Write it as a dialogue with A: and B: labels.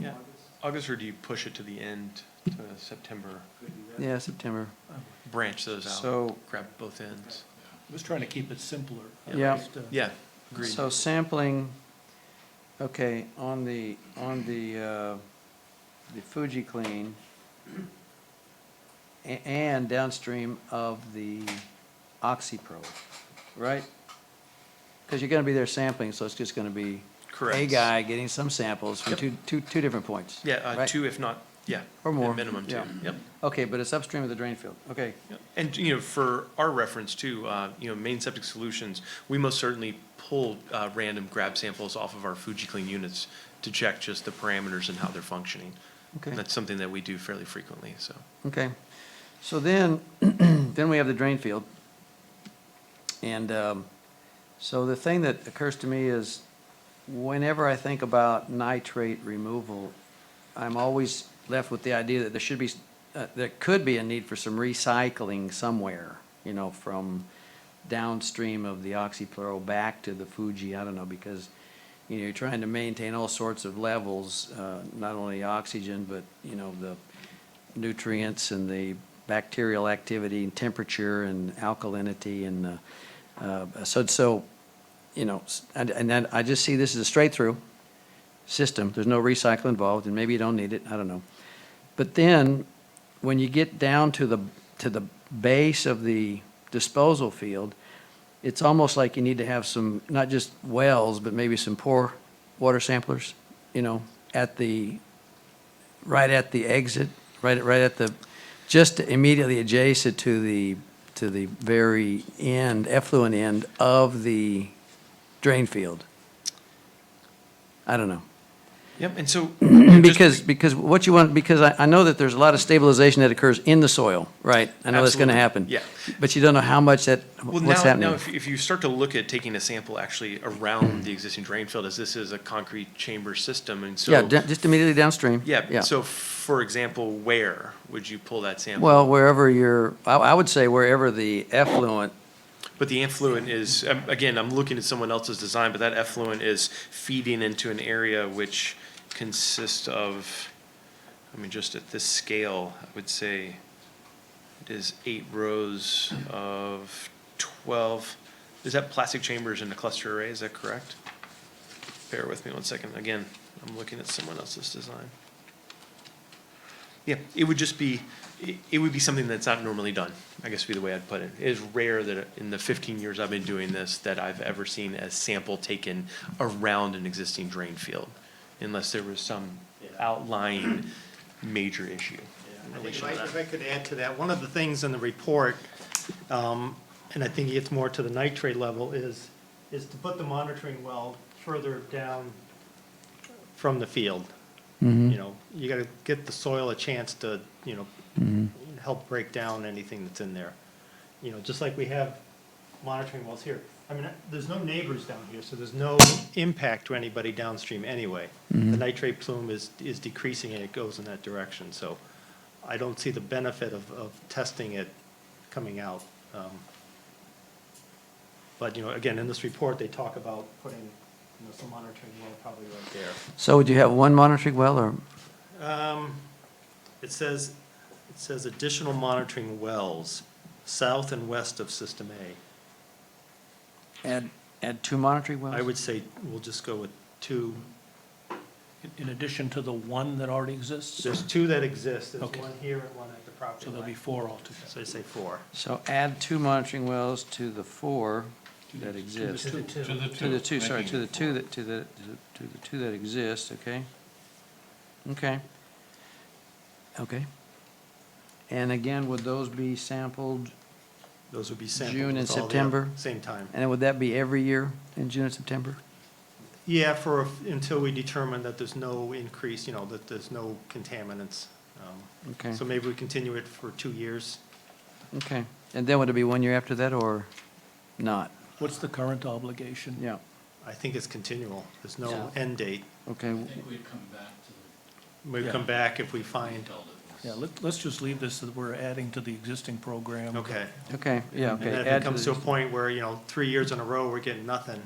A: Yeah, August, or do you push it to the end, to September?
B: Yeah, September.
A: Branch those out.
B: So-
A: Grab both ends.
C: I was trying to keep it simpler. at
B: Yeah.
C: least, uh,
A: Yeah, agreed.
B: So sampling, okay, on the, on the, uh, the Fuji Clean a- and downstream of the OxyPro, right? Because you're gonna be there sampling, so it's just gonna be a
A: Correct.
B: guy getting some samples from
A: Yep.
B: two, two, two different points.
A: Yeah, uh,
B: right?
A: two if not, yeah.
B: Or
A: at
B: more,
A: Minimum two,
B: yeah.
A: yep.
B: Okay, but it's upstream of the drain field, okay.
A: Yep. And, you know, for our reference too, uh, you know, Main Septic Solutions, we most certainly pull uh, random grab samples off of our FujiClean units to check just the parameters and how they're functioning.
B: Okay.
A: And that's something that we do fairly frequently, so.
B: Okay, so then, then we have the drain field. And um, so the thing that occurs to me is whenever I think about nitrate removal, I'm always left with the idea that there should be, uh, there could be a need for some recycling somewhere, you know, from downstream of the oxyploro back to the Fuji, I don't know, because, you know, you're trying to maintain all sorts of levels, uh, not only oxygen, but, you know, the nutrients and the bacterial activity and temperature and alkalinity and, uh, uh, so, so, you know, s- and, and then I just see this as a straight-through system. There's no recycle involved, and maybe you don't need it, I don't know. But then, when you get down to the, to the base of the disposal field, it's almost like you need to have some, not just wells, but maybe some poor water samplers, you know, at the, right at the exit, right, at- right at the, just immediately adjacent to the, to the very end, effluent end of the drain field. I don't know.
A: Yep, and so. just-
B: Because, because what you want, because I, I know that there's a lot of stabilization that occurs in the soil, right? I know that's gonna
A: Absolutely.
B: happen.
A: Yeah.
B: But you don't know how much that,
A: Well,
B: what's
A: now,
B: happening.
A: now if, if you start to look at taking a sample actually around the existing drain field, as this is a concrete chamber system, and so
B: Yeah, da- just immediately downstream.
A: yeah,
B: Yeah.
A: So, for example, where would you pull that sample?
B: Well, wherever you're, I, I would say wherever the effluent,
A: but the effluent is um, again, I'm looking at someone else's design, but that effluent is feeding into an area which consists of, I mean, just at this scale, I would say it is eight rows of twelve. Is that plastic chambers in a cluster array? Is that correct? Bear with me one second. Again, I'm looking at someone else's design. Yeah, it would just be, it- it would be something that's not normally done, I guess would be the way I'd put it. It is rare that in the 15 years I've been doing this, that I've ever seen a sample taken around an existing drain field, unless there was some outlying major issue. in
C: If
A: relation
C: I
A: to that.
C: if I could add to that, one of the things in the report, um, and I think it gets more to the nitrate level, is, is to put the monitoring well further down from the field. You know, you gotta get the soil a chance to, you know, help break down anything that's in there. You know, just like we have monitoring wells here. I mean, there's no neighbors down here, so there's no impact to anybody downstream anyway. The nitrate plume is, is decreasing and it goes in that direction, so I don't see the benefit of, of testing it coming out. Um, But, you know, again, in this report, they talk about putting, you know, some monitoring well probably right there.
B: so would you have one monitoring well or?
C: Um, It says, it says additional monitoring wells, south and west of System A.
B: Add, add two monitoring wells?
C: I would say we'll just go with two,
D: In addition to the one that already exists?
C: there's two that exist, there's
D: Okay.
C: one here and one at the property
D: So there'll be
C: line.
D: four altogether.
C: So I say four.
B: So add two monitoring wells to the four that exist.
D: To the two.
E: To the two.
B: To the two, sorry,
E: making
B: to the
E: it
B: two
E: four.
B: that, to the, to the- to the two that exist, okay? Okay. Okay. And again, would those be sampled,
C: Those would be sampled.
B: June and
C: with all the-
B: September?
C: Same time.
B: and would that be every year in June and September?
C: Yeah, for, until we determine that there's no increase, you know, that there's no contaminants. Um,
B: Okay,
C: So maybe we continue it for two years.
B: okay. And then would it be one year after that or not?
D: What's the current obligation?
B: Yeah,
C: I think it's continual. There's
B: Yeah.
C: no end date.
B: okay.
E: I think we'd come back to
C: We come
D: Yeah.
C: back if we
E: the
C: find,
E: adult at
D: Yeah,
E: least.
D: let, let's just leave this, that we're adding to the existing program.
C: okay.
B: Okay, yeah,
C: And
B: okay.
C: then if
B: add
C: it comes
B: the-
C: to a point where, you know, three years in a row, we're getting nothing.